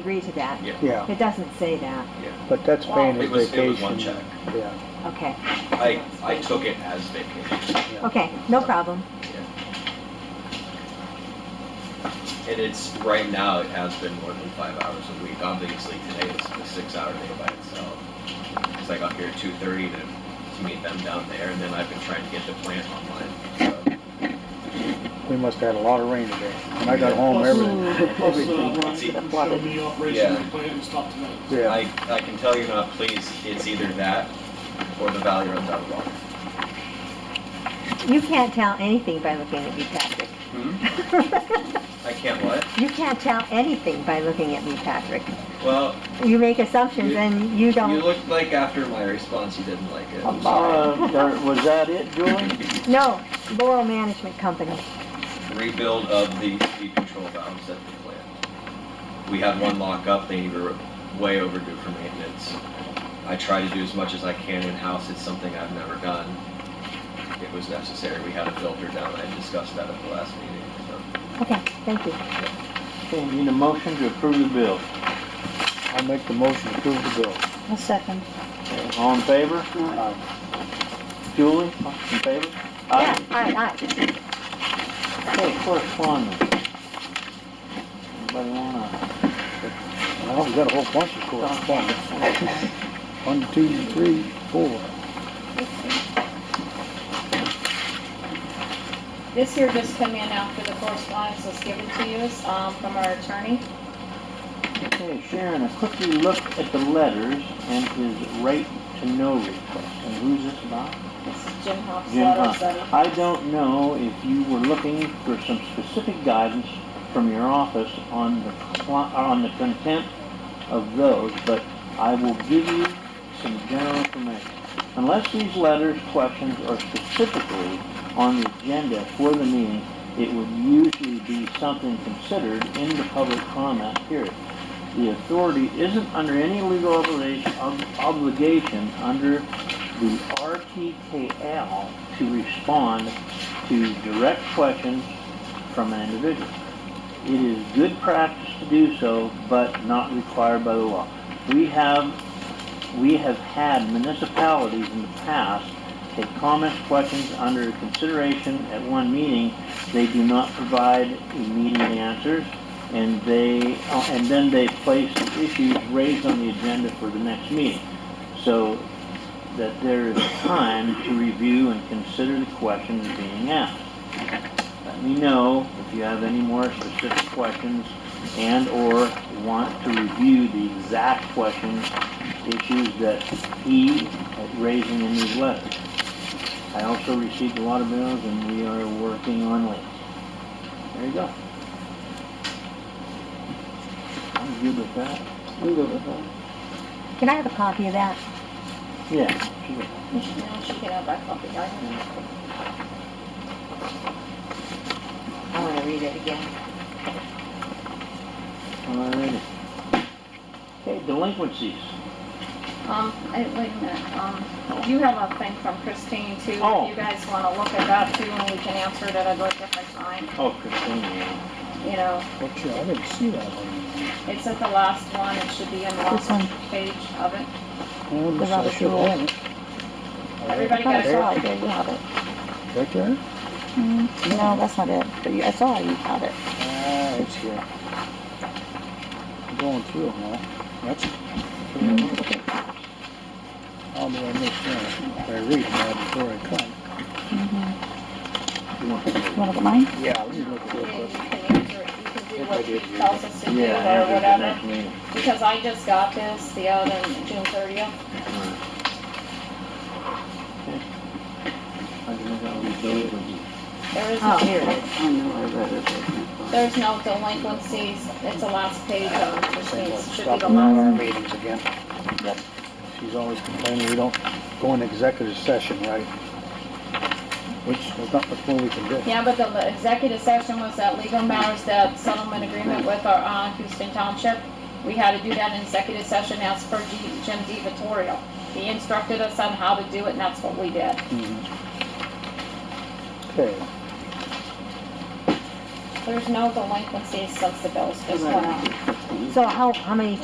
agree to that. Yeah, Yeah, It doesn't say that, yeah. but that's paying his It was, it was vacation. one check. Yeah, okay. I, I took it as vacation. yeah. Okay, no problem. And it's, right now, it has been more than five hours a week. Obviously, today is a six-hour day by itself. Because I got here at two-thirty to, to meet them down there, and then I've been trying to get the plant online. We must have had a lot of rain today. When I got home, everything, Plus, uh, everything. Brian didn't show me the Yeah. operational plan and stuff tonight. So Yeah, I, I can tell you're not pleased. It's either that or the value runs out of water. You can't tell anything by looking at me, Patrick. I can't what? You can't tell anything by looking at me, Patrick. Well, You make assumptions You- and you you don't, looked like after my response, you didn't like it. I'm sorry. Uh, was that it, Julie? no, Laurel Management Company. rebuild of the speed control valves at the plant. We had one lock up, they were way overdue for maintenance. I try to do as much as I can in-house, it's something I've never done. It was necessary, we had a filter down, I discussed that at the last meeting, so. Okay, thank you. Okay, need a motion to approve the bill. I'll make the motion to approve the bill. Uh, A second. All in favor? Aye. Julie, in Yeah, favor? aye, aye. Aye. Okay, correspondence. Anybody wanna? Well, we got a whole bunch of correspondence. One, two, three, four. This here just come in after the correspondence was given to you, um, from our attorney. Okay, Sharon, a quick look at the letters and his right to know request. And who's this about? This is Jim Hopp's Jim letter, Hunt. so I don't know if you were looking for some specific guidance from your office on the, cli- on the content of those, but I will give you some general information. Unless these letters, questions are specifically on the agenda for the meeting, it would usually be something considered in the public comment period. The authority isn't under any legal obligation, ob- obligation under the RTKL to respond to direct questions from an individual. It is good practice to do so, but not required by the law. We have, we have had municipalities in the past take comments, questions under consideration at one meeting. They do not provide immediate answers, and they, uh, and then they place issues raised on the agenda for the next meeting. So that there is time to review and consider the questions being asked. Let me know if you have any more specific questions and/or want to review the exact questions, issues that he is raising in his letter. I also received a lot of bills and we are working on links. There you go. I'm good with that. I'm good with that. Can I have a copy of that? Yeah, sure. you should know she can have our copy, right? I want to read it again. Alrighty. Okay, delinquencies. Um, I- wait a minute, um, you have a thing from Christine too, Oh. if you guys wanna look at that too, and we can answer it at a different time, Oh, Christine, yeah. you know. What's your, I didn't see that one. It's at the last one, it should be in the This last one. page of it. Oh, The I rubbish should've roll. had it. Everybody I got a saw copy? it, you have it. Mm-hmm. Right there? No, that's not it, but you- I saw you have it. Ah, it's here. I'm Going through them all. That's. How do I miss that? I read that before I come. You want to You wanna look at mine? Yeah, let me look at Yeah, you it. can answer it, you can do If I what he did read tells us to do Yeah, after or the whatever. next meeting. Because I just got this the other, June I thirtieth. don't know how we do it. There is Oh, no, here it is. there's no delinquencies. It's the last page of Saying, Christine's, should be Stop the all our last. meetings again. She's always complaining we don't go in executive session, right? Which is not much more we can do. Yeah, but the executive session was that legal matters, that settlement agreement with our, uh, Houston Township. We had to do that in executive session as per G- Jim D. Vittorio. He instructed us on how to do it and that's what we Mm-hmm. did. Mhm. Okay, there's no delinquencies since the bills just went out. So how, how many